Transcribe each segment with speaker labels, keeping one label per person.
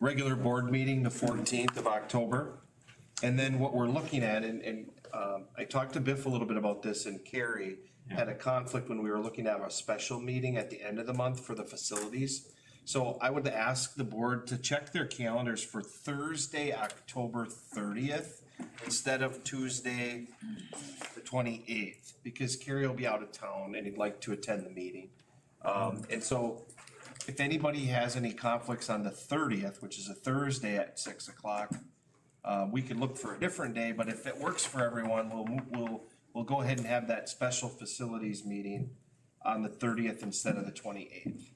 Speaker 1: regular board meeting, the 14th of October. And then what we're looking at, and, and um, I talked to Biff a little bit about this, and Carrie had a conflict when we were looking to have a special meeting at the end of the month for the facilities. So I would ask the board to check their calendars for Thursday, October 30th, instead of Tuesday, the 28th, because Carrie will be out of town and he'd like to attend the meeting. Um, And so if anybody has any conflicts on the 30th, which is a Thursday at 6 o'clock, uh, we could look for a different day, but if it works for everyone, we'll, mo- we'll, we'll go ahead and have that special facilities meeting on the 30th instead of the 28th.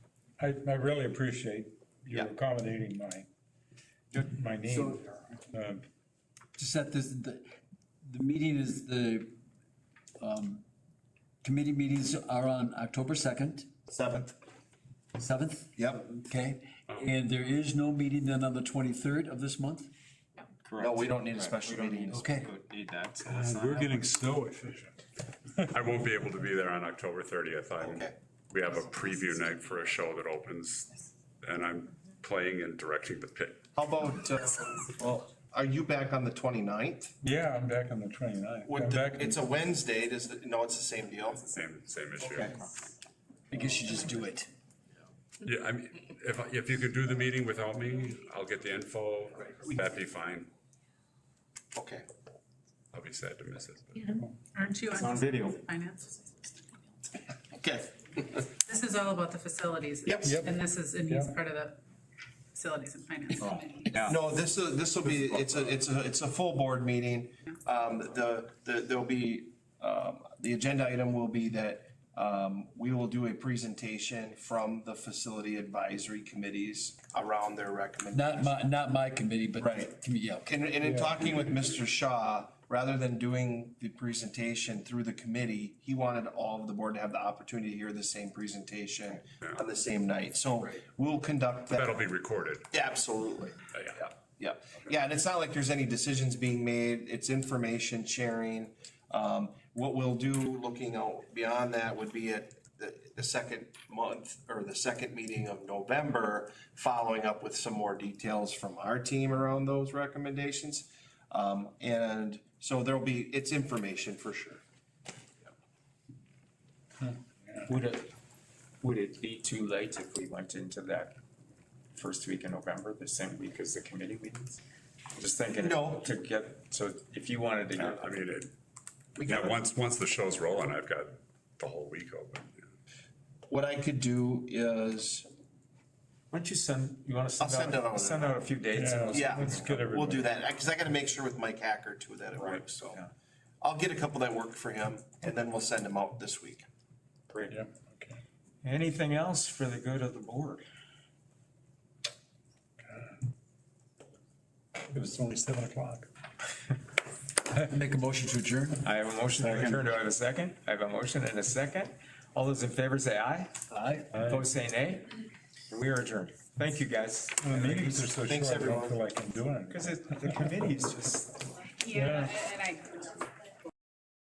Speaker 2: I, I really appreciate you
Speaker 1: Yeah.
Speaker 2: accommodating my, my name. Um,
Speaker 3: to set this, the, the meeting is the, um, committee meetings are on October second,
Speaker 1: 7th.
Speaker 3: seventh,
Speaker 1: Yep.
Speaker 3: okay? And there is no meeting then on the twenty-third of this month?
Speaker 1: No, we don't need a special meeting.
Speaker 3: Okay.
Speaker 4: Need that, uh, so that's
Speaker 2: We're
Speaker 4: not.
Speaker 2: getting snow efficient.
Speaker 5: I won't be able to be there on October thirtieth. I'm,
Speaker 1: Okay.
Speaker 5: we have a preview night for a show that opens and I'm playing and directing the pit.
Speaker 1: How about, uh, well, are you back on the 29th?
Speaker 2: Yeah, I'm back on the 29th.
Speaker 1: Would
Speaker 2: I'm
Speaker 1: the-
Speaker 2: back,
Speaker 1: It's a Wednesday, does, the- no, it's the same deal?
Speaker 5: Same, same issue.
Speaker 1: Okay.
Speaker 3: I guess you just do it.
Speaker 5: Yeah, I mean, if, if you could do the meeting without me, I'll get the info. That'd be fine.
Speaker 1: Okay.
Speaker 5: I'll be sad to miss it. but-
Speaker 6: Aren't you
Speaker 4: On
Speaker 6: on
Speaker 4: video.
Speaker 6: finance?
Speaker 1: Okay.
Speaker 6: This is all about the facilities.
Speaker 1: Yep. Yep.
Speaker 6: And this is, and he's
Speaker 2: Yeah.
Speaker 6: part of the facilities and
Speaker 4: Oh.
Speaker 6: finance.
Speaker 4: Yeah.
Speaker 1: No, this, will this will be, it's a, it's a, it's a full board meeting. Um, the, the, there'll be, um, the agenda item will be that, um, we will do a presentation from the facility advisory committees around their recommendations.
Speaker 3: Not my, not my committee, but.
Speaker 1: Right.
Speaker 3: committee, Yeah, okay.
Speaker 1: And, and in talking with Mr. Shaw, rather than doing the presentation through the committee, he wanted all of the board to have the opportunity to hear the same presentation on the same night. So we'll conduct that.
Speaker 5: That'll be recorded.
Speaker 1: Absolutely.
Speaker 5: yeah.
Speaker 1: Yeah, yeah, and it's not like there's any decisions being made, it's information sharing. Um, what we'll do, looking out beyond that, would be at the, the second month, or the second meeting of November, following up with some more details from our team around those recommendations. Um, and so there'll be, it's information for sure.
Speaker 4: Would it, would it be too late if we went into that first week in November, the same week as the committee meetings? Just thinking.
Speaker 1: No.
Speaker 4: To get, so if you wanted to
Speaker 5: Yeah,
Speaker 4: get,
Speaker 5: I mean, it, yeah, once, once the show's rolling, I've got the whole week open.
Speaker 1: What I could do is,
Speaker 4: why don't you send, you wanna send
Speaker 1: I'll send it
Speaker 4: out,
Speaker 1: out.
Speaker 4: send out a few dates? and we'll-
Speaker 1: yeah,
Speaker 2: Let's get
Speaker 1: we'll
Speaker 2: everybody.
Speaker 1: do that, because I gotta make sure with Mike Hacker too that it works, so.
Speaker 4: yeah.
Speaker 1: I'll get a couple that work for him, and then we'll send them out this week.
Speaker 4: Great.
Speaker 2: Yep, okay.
Speaker 4: Anything else for the good of the board?
Speaker 2: It was only seven o'clock.
Speaker 3: Make a motion to adjourn?
Speaker 4: I have a motion to adjourn. Do I have a second? I have a motion and a second. All those in favor say aye.
Speaker 3: Aye.
Speaker 4: Opposed say nay. We are adjourned. Thank you, guys.
Speaker 2: The meetings are so short,
Speaker 1: Thanks,
Speaker 2: I don't
Speaker 1: everyone.
Speaker 2: feel like I'm doing it.
Speaker 4: Because it, the committee is just.
Speaker 6: Yeah, and I